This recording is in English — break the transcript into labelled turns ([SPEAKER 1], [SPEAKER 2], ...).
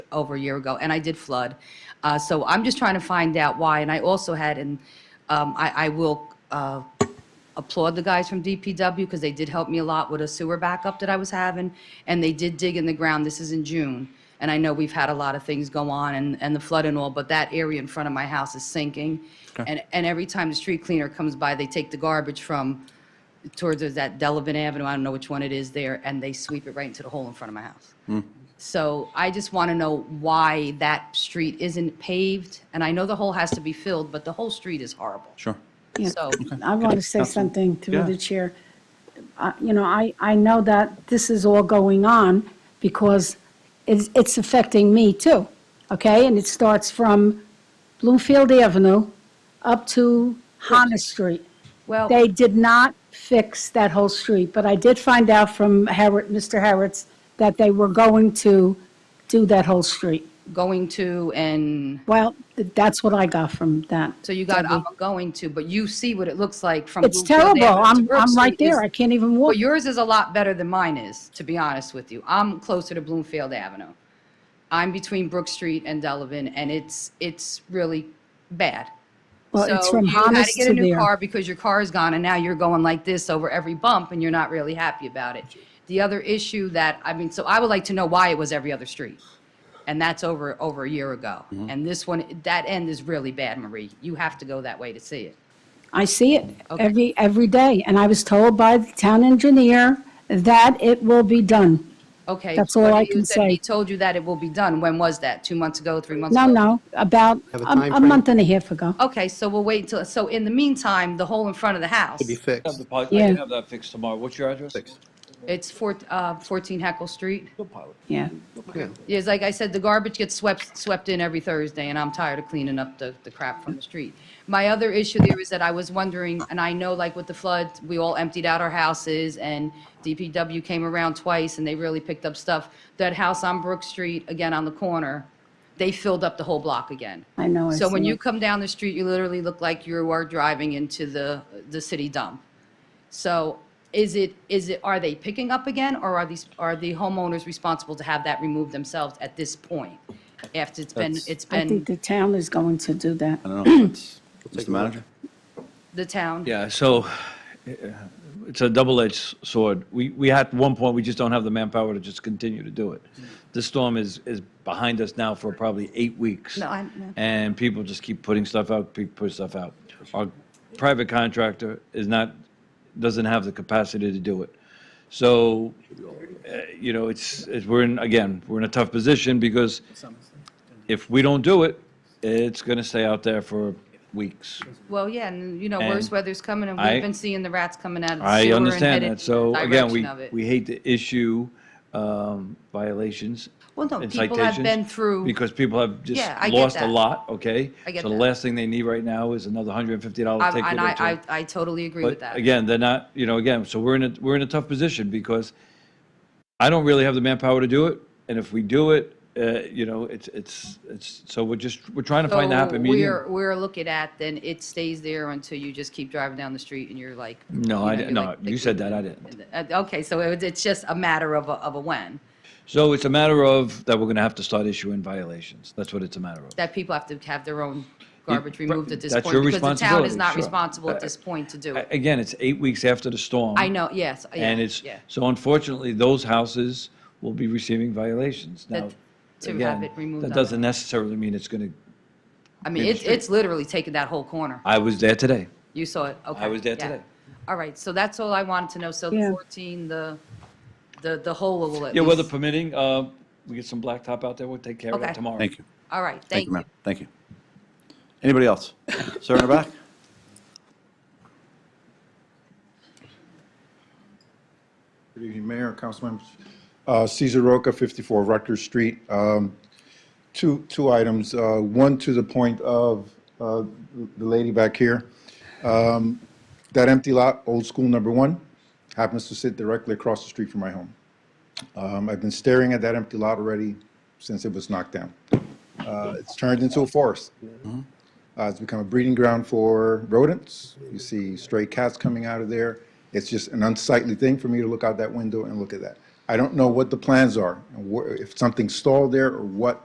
[SPEAKER 1] over a year ago, and I did flood. Uh, So I'm just trying to find out why, and I also had, and um, I I will uh, applaud the guys from DPW because they did help me a lot with a sewer backup that I was having, and they did dig in the ground. This is in June, and I know we've had a lot of things go on and, and the flood and all, but that area in front of my house is sinking. And, and every time the street cleaner comes by, they take the garbage from towards that Delavan Avenue, I don't know which one it is there, and they sweep it right into the hole in front of my house. So I just want to know why that street isn't paved, and I know the hole has to be filled, but the whole street is horrible.
[SPEAKER 2] Sure.
[SPEAKER 3] Yeah.
[SPEAKER 1] So-
[SPEAKER 3] I want to say something through
[SPEAKER 2] Yeah.
[SPEAKER 3] the chair. I- You know, I, I know that this is all going on because it's, it's affecting me too, okay? And it starts from Bloomfield Avenue up to Hana Street.
[SPEAKER 1] Well-
[SPEAKER 3] They did not fix that whole street, but I did find out from Harrod, Mr. Harrod's, that they were going to do that whole street.
[SPEAKER 1] Going to and
[SPEAKER 3] Well, th- that's what I got from that.
[SPEAKER 1] So you got, I'm
[SPEAKER 3] Debbie.
[SPEAKER 1] going to, but you see what it looks like from.
[SPEAKER 3] It's
[SPEAKER 1] Bloomfield
[SPEAKER 3] terrible.
[SPEAKER 1] Avenue to
[SPEAKER 3] I'm,
[SPEAKER 1] Brook
[SPEAKER 3] I'm right
[SPEAKER 1] Street is-
[SPEAKER 3] there. I can't even walk.
[SPEAKER 1] Well, yours is a lot better than mine is, to be honest with you. I'm closer to Bloomfield Avenue. I'm between Brook Street and Delavan, and it's, it's really bad.
[SPEAKER 3] Well, it's from
[SPEAKER 1] So you had
[SPEAKER 3] Hamas
[SPEAKER 1] to get a
[SPEAKER 3] to
[SPEAKER 1] new
[SPEAKER 3] there.
[SPEAKER 1] car because your car is gone, and now you're going like this over every bump, and you're not really happy about it. The other issue that, I mean, so I would like to know why it was every other street. And that's over, over a year ago.
[SPEAKER 4] Mm-hmm.
[SPEAKER 1] And this one, that end is really bad, Marie. You have to go that way to see it.
[SPEAKER 3] I see it
[SPEAKER 1] Okay.
[SPEAKER 3] every, every day. And I was told by the town engineer that it will be done.
[SPEAKER 1] Okay.
[SPEAKER 3] That's all
[SPEAKER 1] what do
[SPEAKER 3] I
[SPEAKER 1] you-
[SPEAKER 3] can
[SPEAKER 1] said He
[SPEAKER 3] say.
[SPEAKER 1] told you that it will be done. When was that? Two months ago, three months ago?
[SPEAKER 3] No, no, about
[SPEAKER 4] Have
[SPEAKER 3] a
[SPEAKER 4] a
[SPEAKER 3] a
[SPEAKER 4] timeframe?
[SPEAKER 3] month and a half ago.
[SPEAKER 1] Okay, so we'll wait until, so in the meantime, the hole in front of the house,
[SPEAKER 4] to be
[SPEAKER 5] Have
[SPEAKER 4] fixed.
[SPEAKER 5] the pilot, I
[SPEAKER 3] Yeah.
[SPEAKER 5] can have that fixed tomorrow. What's your address?
[SPEAKER 4] Fixed.
[SPEAKER 1] it's four- uh, 14 Heckle Street.
[SPEAKER 5] Good pilot.
[SPEAKER 3] Yeah.
[SPEAKER 4] Yeah.
[SPEAKER 1] Yes, like I said, the garbage gets swept, swept in every Thursday, and I'm tired of cleaning up the, the crap from the street. My other issue there is that I was wondering, and I know like with the flood, we all emptied out our houses, and DPW came around twice, and they really picked up stuff. That house on Brook Street, again on the corner, they filled up the whole block again.
[SPEAKER 3] I know, I
[SPEAKER 1] So when
[SPEAKER 3] see
[SPEAKER 1] you
[SPEAKER 3] it.
[SPEAKER 1] come down the street, you literally look like you are driving into the, the city dump. So is it, is it, are they picking up again, or are these, are the homeowners responsible to have that removed themselves at this point? After it's been,
[SPEAKER 2] That's-
[SPEAKER 1] it's
[SPEAKER 3] I
[SPEAKER 1] been
[SPEAKER 3] think the town is going to do that.
[SPEAKER 2] I don't know. It's- Mr.
[SPEAKER 4] take a look.
[SPEAKER 2] Manager?
[SPEAKER 1] the town?
[SPEAKER 5] Yeah, so uh, it's a double-edged sword. We, we had, at one point, we just don't have the manpower to just continue to do it. This storm is, is behind us now for probably eight weeks.
[SPEAKER 1] No, I- no.
[SPEAKER 5] And people just keep putting stuff out, keep putting stuff out. Our private contractor is not, doesn't have the capacity to do it. So, uh, you know, it's, it's, we're in, again, we're in a tough position because if we don't do it, it's going to stay out there for weeks.
[SPEAKER 1] Well, yeah, and you know, worse
[SPEAKER 5] And
[SPEAKER 1] weather's coming, and
[SPEAKER 5] I-
[SPEAKER 1] we've been seeing the rats coming out of the
[SPEAKER 5] I
[SPEAKER 1] sewer and
[SPEAKER 5] understand
[SPEAKER 1] headed
[SPEAKER 5] that. So
[SPEAKER 1] in the
[SPEAKER 5] again, we,
[SPEAKER 1] direction of it.
[SPEAKER 5] we hate to issue um, violations
[SPEAKER 1] Well, no,
[SPEAKER 5] and
[SPEAKER 1] people have
[SPEAKER 5] citations
[SPEAKER 1] been through-
[SPEAKER 5] Because people have just
[SPEAKER 1] Yeah, I get
[SPEAKER 5] lost a
[SPEAKER 1] that.
[SPEAKER 5] lot, okay?
[SPEAKER 1] I get
[SPEAKER 5] So the
[SPEAKER 1] that.
[SPEAKER 5] last thing they need right now is another $150 ticket or
[SPEAKER 1] I- And I,
[SPEAKER 5] two.
[SPEAKER 1] I, I totally agree with
[SPEAKER 5] But
[SPEAKER 1] that.
[SPEAKER 5] again, they're not, you know, again, so we're in a, we're in a tough position because I don't really have the manpower to do it. And if we do it, uh, you know, it's, it's, it's, so we're just, we're trying to find the happy
[SPEAKER 1] So
[SPEAKER 5] medium.
[SPEAKER 1] We're, we're looking at, then it stays there until you just keep driving down the street and you're like.
[SPEAKER 5] No,
[SPEAKER 1] you know,
[SPEAKER 5] I didn't,
[SPEAKER 1] you're
[SPEAKER 5] no,
[SPEAKER 1] like-
[SPEAKER 5] you said that, I didn't.
[SPEAKER 1] Uh, Okay, so it- it's just a matter of a, of a when,
[SPEAKER 5] So it's a matter of that we're going to have to start issuing violations. That's what it's a matter of.
[SPEAKER 1] that people have to have their own garbage
[SPEAKER 5] but
[SPEAKER 1] removed at this point.
[SPEAKER 5] that's your
[SPEAKER 1] Because the town is
[SPEAKER 5] responsibility,
[SPEAKER 1] not
[SPEAKER 5] sure.
[SPEAKER 1] responsible at
[SPEAKER 5] I-
[SPEAKER 1] this point to do
[SPEAKER 5] A-
[SPEAKER 1] it.
[SPEAKER 5] Again, it's eight weeks after the storm.
[SPEAKER 1] I know, yes, yeah,
[SPEAKER 5] And it's,
[SPEAKER 1] yeah.
[SPEAKER 5] so unfortunately, those houses will be receiving violations. Now,
[SPEAKER 1] That- to have
[SPEAKER 5] again,
[SPEAKER 1] it removed
[SPEAKER 5] that
[SPEAKER 1] on
[SPEAKER 5] doesn't necessarily mean it's going to,
[SPEAKER 1] I mean,
[SPEAKER 5] in the
[SPEAKER 1] it's,
[SPEAKER 5] street.
[SPEAKER 1] it's literally taking that whole corner.
[SPEAKER 5] I was there today.
[SPEAKER 1] You saw it, okay.
[SPEAKER 5] was there
[SPEAKER 1] yeah.
[SPEAKER 5] today.
[SPEAKER 1] All right, so that's all I wanted to know. So the
[SPEAKER 3] Yeah.
[SPEAKER 1] 14, the, the, the whole will at
[SPEAKER 5] Yeah, weather
[SPEAKER 1] least.
[SPEAKER 5] permitting, uh, we get some blacktop out there, we'll take care of
[SPEAKER 1] Okay.
[SPEAKER 5] that tomorrow.
[SPEAKER 2] Thank you.
[SPEAKER 1] All right,
[SPEAKER 2] Thank
[SPEAKER 1] thank
[SPEAKER 2] you,
[SPEAKER 1] you.
[SPEAKER 2] ma'am. Thank you. Anybody else? Sir in the back?
[SPEAKER 6] Good evening, Mayor, council members. Uh, Cesar Roca, 54 Rutgers Street. Um, Two, two items, uh, one to the point of uh, the lady back here. Um, That empty lot, old school number one, happens to sit directly across the street from my home. Um, I've been staring at that empty lot already since it was knocked down. Uh, It's turned into a forest. Uh, It's become a breeding ground for rodents. You see stray cats coming out of there. It's just an unsightly thing for me to look out that window and look at that. I don't know what the plans are, and wh- if something stalled there or what